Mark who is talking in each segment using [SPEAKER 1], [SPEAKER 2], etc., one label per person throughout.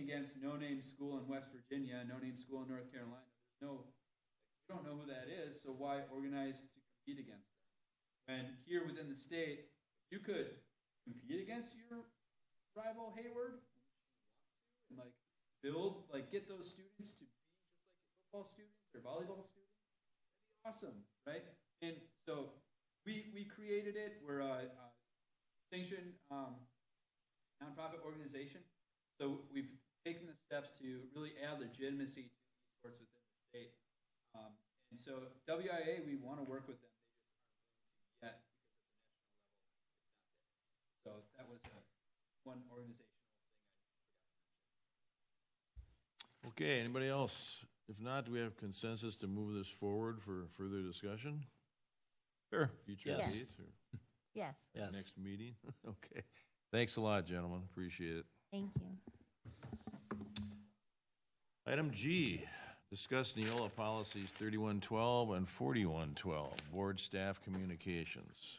[SPEAKER 1] against No Name School in West Virginia, No Name School in North Carolina. There's no, you don't know who that is, so why organize to compete against them? And here within the state, you could compete against your rival Hayward, and like build, like get those students to be just like football students or volleyball students. That'd be awesome, right? And so we we created it. We're a, a sanctioned um, nonprofit organization. So we've taken the steps to really add legitimacy to esports within the state. Um, and so WIA, we want to work with them. They just aren't willing to yet because at the national level, it's not there. So that was uh one organizational
[SPEAKER 2] Okay, anybody else? If not, do we have consensus to move this forward for further discussion?
[SPEAKER 3] Sure.
[SPEAKER 2] Future
[SPEAKER 4] Yes.
[SPEAKER 2] dates or
[SPEAKER 4] Yes,
[SPEAKER 3] Yes.
[SPEAKER 2] next meeting? Okay. Thanks a lot, gentlemen. Appreciate it.
[SPEAKER 4] thank you.
[SPEAKER 2] Item G, discuss Neola policies thirty-one twelve and forty-one twelve, board staff communications.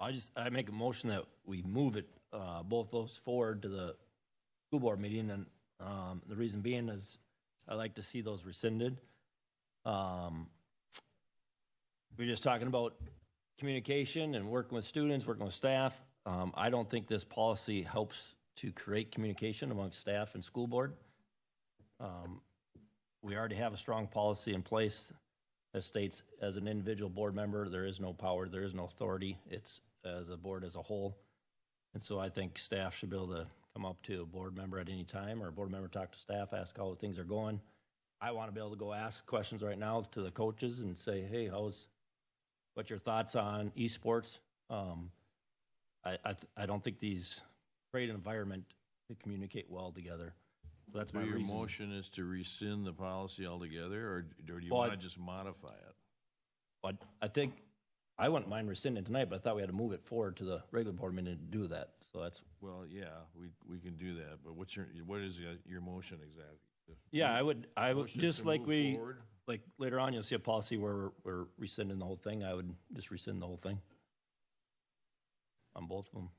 [SPEAKER 3] I just, I make a motion that we move it, uh, both those forward to the school board meeting, and, um, the reason being is I like to see those rescinded. Um, we We're just talking about communication and working with students, working with staff. Um, I don't think this policy helps to create communication amongst staff and school board. Um, We already have a strong policy in place that states as an individual board member, there is no power, there is no authority. It's as a board as a whole. And so I think staff should be able to come up to a board member at any time or a board member talk to staff, ask how things are going. I want to be able to go ask questions right now to the coaches and say, hey, how's, what's your thoughts on esports? Um, I, I, th- I don't think these create an environment to communicate well together. That's
[SPEAKER 2] So
[SPEAKER 3] my
[SPEAKER 2] your
[SPEAKER 3] reason.
[SPEAKER 2] motion is to rescind the policy altogether, or or do you
[SPEAKER 3] Well, I-
[SPEAKER 2] want to just modify it?
[SPEAKER 3] But I think, I wouldn't mind rescinding tonight, but I thought we had to move it forward to the regular board meeting to do that. So that's,
[SPEAKER 2] Well, yeah, we, we can do that, but what's your, what is your- your motion exactly?
[SPEAKER 3] yeah, I would, I would,
[SPEAKER 2] Motion is
[SPEAKER 3] just
[SPEAKER 2] to
[SPEAKER 3] like
[SPEAKER 2] move
[SPEAKER 3] we,
[SPEAKER 2] forward?
[SPEAKER 3] like later on, you'll see a policy where we're- we're rescinding the whole thing. I would just rescind the whole thing. On both of them.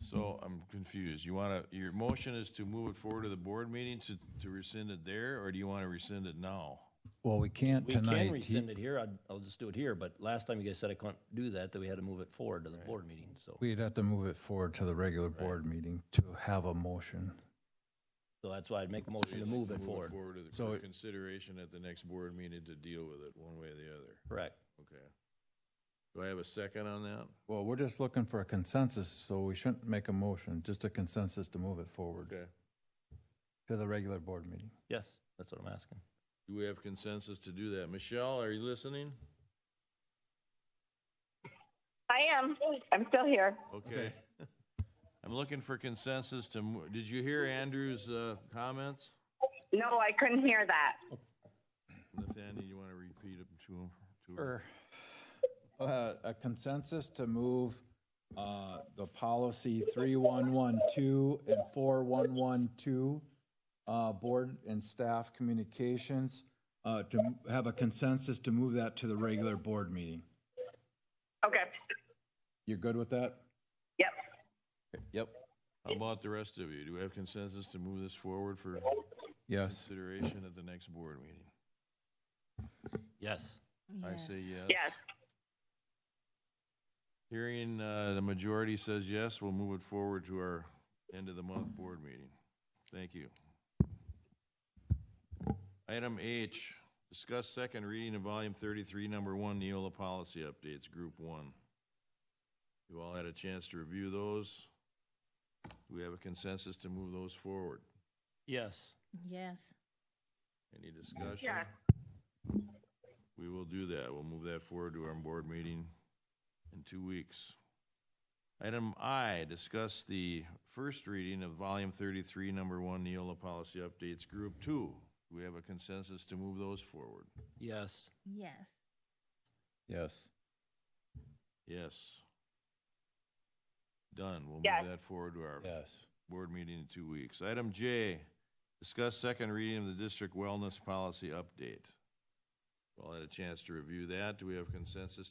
[SPEAKER 2] So I'm confused. You want to, your motion is to move it forward to the board meeting to, to rescind it there, or do you want to rescind it now?
[SPEAKER 5] Well, we can't
[SPEAKER 3] We can
[SPEAKER 5] tonight. He-
[SPEAKER 3] rescind it here. I'd, I'll just do it here, but last time you guys said I couldn't do that, that we had to move it forward to the board meeting, so.
[SPEAKER 5] We'd have to move it forward to the regular board meeting to have a motion.
[SPEAKER 3] So that's why I'd make a motion to move it forward.
[SPEAKER 2] Forward to the-
[SPEAKER 5] So
[SPEAKER 2] for
[SPEAKER 5] it-
[SPEAKER 2] consideration at the next board meeting to deal with it one way or the other.
[SPEAKER 3] Correct.
[SPEAKER 2] Okay. Do I have a second on that?
[SPEAKER 5] Well, we're just looking for a consensus, so we shouldn't make a motion, just a consensus to move it forward
[SPEAKER 2] Okay.
[SPEAKER 5] to the regular board meeting.
[SPEAKER 3] Yes, that's what I'm asking.
[SPEAKER 2] Do we have consensus to do that? Michelle, are you listening?
[SPEAKER 6] I am. I'm still here.
[SPEAKER 2] Okay. I'm looking for consensus to, mo- did you hear Andrew's, uh, comments?
[SPEAKER 6] No, I couldn't hear that.
[SPEAKER 2] Nathaniel, you want to repeat them to him? to her?
[SPEAKER 5] Uh, A consensus to move uh, the policy 3112 and 4112, uh, board and staff communications, uh, to m- have a consensus to move that to the regular board meeting.
[SPEAKER 6] Okay.
[SPEAKER 5] You're good with that?
[SPEAKER 6] Yep.
[SPEAKER 5] Yep.
[SPEAKER 2] How about the rest of you? Do we have consensus to move this forward for
[SPEAKER 5] Yes.
[SPEAKER 2] consideration at the next board meeting?
[SPEAKER 3] Yes.
[SPEAKER 2] I say yes.
[SPEAKER 6] Yes.
[SPEAKER 2] Hearing, uh, the majority says yes, we'll move it forward to our end of the month board meeting. Thank you. Item H, discuss second reading of volume thirty-three, number one, Neola policy updates, group one. You all had a chance to review those. Do we have a consensus to move those forward?
[SPEAKER 3] Yes.
[SPEAKER 4] Yes,
[SPEAKER 2] Any discussion?
[SPEAKER 6] Yes.
[SPEAKER 2] We will do that. We'll move that forward to our board meeting in two weeks. Item I, discuss the first reading of volume thirty-three, number one, Neola Policy Updates, Group Two. Do we have a consensus to move those forward?
[SPEAKER 3] Yes.
[SPEAKER 4] yes,
[SPEAKER 5] Yes.
[SPEAKER 2] Yes. Done. We'll
[SPEAKER 6] Yes.
[SPEAKER 2] move that forward to our
[SPEAKER 5] Yes.
[SPEAKER 2] board meeting in two weeks. Item J, discuss second reading of the district wellness policy update. We all had a chance to review that. Do we have consensus to